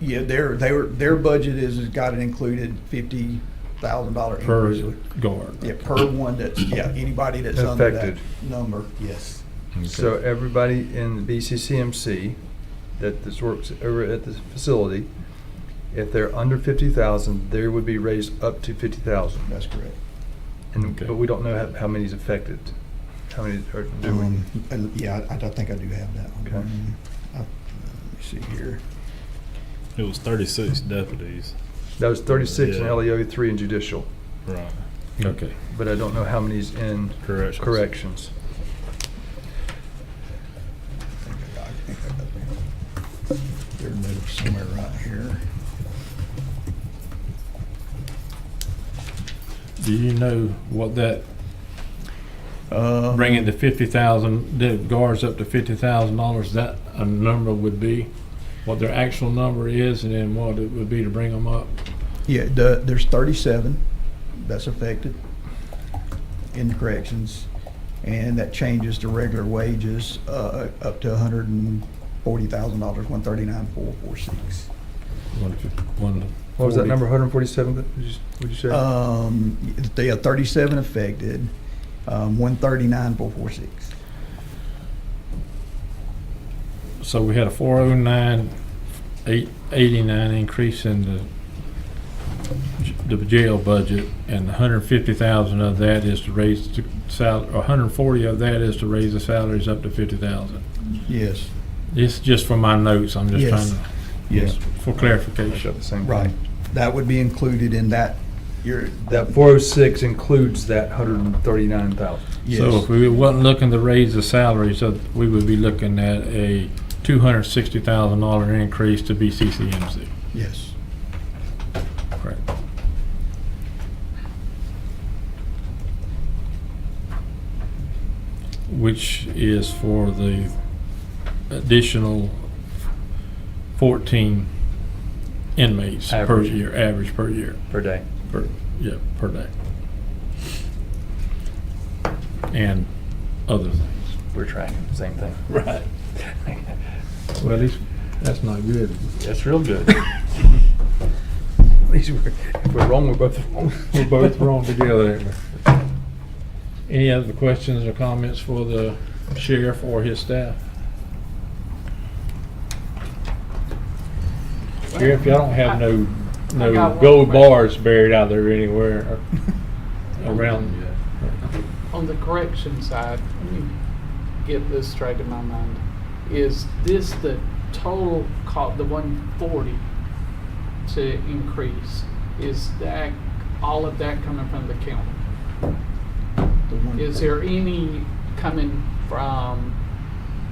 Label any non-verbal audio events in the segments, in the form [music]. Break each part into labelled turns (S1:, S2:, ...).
S1: Yeah, their, their, their budget is, has got it included fifty thousand dollars.
S2: per guard.
S1: Yeah, per one that's, yeah, anybody that's under that
S3: Affected.
S1: number, yes.
S3: So uh, everybody in the BCCMC that this works over at the facility, if they're under fifty thousand, they would be raised up to fifty thousand.
S1: That's correct.
S3: And,
S2: Okay.
S3: but we don't know how, how many's affected. How many are, do we?
S1: Um, and, Yeah, I, I think I do have that one.
S3: Okay.
S1: Um, I- Let me see here.
S4: It was 36 deputies.
S3: That was thirty-six in
S4: Yeah.
S3: LEO three and judicial,
S4: Right.
S2: Okay.
S3: but I don't know how many's in
S4: Corrections.
S3: corrections.
S1: I think I got- I think I got that. They're moved somewhere right here.
S2: Do you know what that,
S1: Uh,
S2: bringing the fifty thousand, the guards up to fifty thousand dollars, that a number would be? What their actual number is and then what it would be to bring them up?
S1: Yeah, the, there's thirty-seven that's affected in the corrections, and that changes to regular wages, uh, up to hundred and forty thousand dollars, one thirty-nine, four, four, six.
S2: One fif- one
S3: What was that
S2: forty. Uh,
S3: number, hundred and forty-seven, would you, would you say?
S1: Um, they are thirty-seven affected, um, one thirty-nine, four, four, six.
S2: So we had a four oh nine, eight eighty-nine increase in the, j- the jail budget, and hundred fifty thousand of that is to raise the sal, or hundred forty of that is to raise the salaries up to fifty thousand.
S1: Yes,
S2: It's just for my notes, I'm just
S1: Yes.
S2: trying to.
S1: yes,
S2: For
S3: I shot
S2: clarification.
S3: the same thing.
S1: right. That would be included in that, your,
S3: That four oh six includes that hundred and thirty-nine thousand.
S2: So
S1: yes,
S2: if we wasn't looking to raise the salaries, so we would be looking at a two hundred sixty thousand dollar increase to BCCMC.
S1: yes.
S2: Correct. Which is for the additional fourteen inmates per
S3: Average.
S2: year, average per year,
S3: Per day.
S2: per, yeah, per day. And other things.
S3: We're tracking, the same thing. [laughs]
S2: Right. Well, at least, that's not good.
S3: That's
S2: [laughs]
S3: real good. At least we're, if we're wrong, we're both wrong.
S2: We're both wrong together. ain't we? Any other questions or comments for the sheriff or his staff? Sheriff, y'all don't have no,
S5: I got
S2: no
S5: one
S2: gold
S5: question.
S2: bars buried out there anywhere around.
S5: On the correction side, let me get this straight in my mind. Is this the total cost, the one forty to increase? Is that, all of that coming from the county?
S1: The one-
S5: Is there any coming from,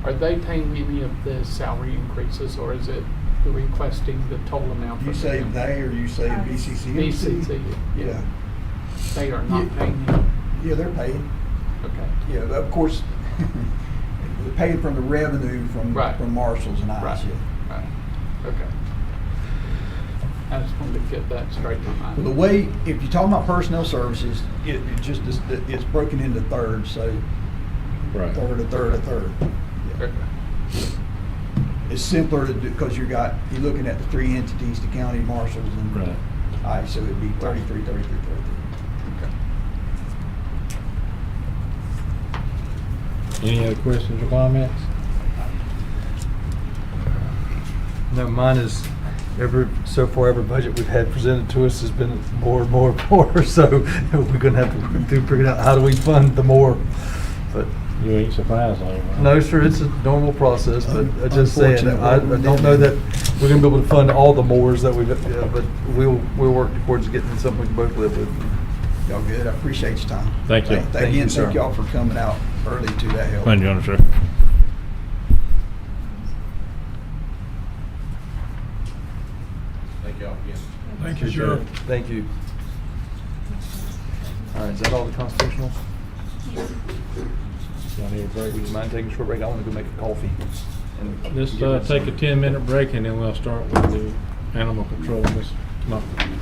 S5: are they paying any of the salary increases or is it requesting the total amount?
S1: You
S5: from the
S1: say
S5: county?
S1: they, or you say BCC?
S5: BCC,
S1: Yeah,
S5: They are not
S1: Yeah.
S5: paying any,
S1: yeah, they're paid.
S5: okay.
S1: Yeah, of course, [laughs] they're paid from the revenue from,
S5: Right.
S1: from marshals and ICE.
S5: Right, right, okay. I just wanted to get that straight in my mind.
S1: The way, if you talk about personnel services, it, it just, is- it's broken into thirds, so
S2: Right.
S1: third, a third, a third.
S5: Okay.
S1: It's simpler to do, because you got, you're looking at the three entities, the county marshals and
S2: Right.
S1: ICE, so it'd be thirty-three, thirty-three, thirty-three.
S5: Okay.
S2: Any other questions or comments?
S3: No, mine is, every, so far, every budget we've had presented to us has been more, more, more, [laughs] so we're gonna have to work through figuring out how do we fund the more. But,
S2: You ain't surprised, are you?
S3: no, sir, it's a normal process, but I just saying, that I I
S1: Unfortunately,
S3: don't know that we're gonna be able to fund all the mores that we've, yeah, but we'll, we'll work towards getting something we can both live with.
S1: Y'all good? I appreciate your time.
S2: Thank you.
S3: Thank you,
S1: Again,
S3: sir.
S1: thank y'all for coming out early to that help.
S4: Thank you, Undersheriff.
S2: Thank
S3: Thank you. All right, is that all the constitutional? Y'all need a break? Would you mind taking a short break? I want to go make a coffee. and
S2: Let's
S3: get
S2: uh,
S3: this-
S2: take a 10-minute break and then we'll start with the animal control, Ms. Mumphrey.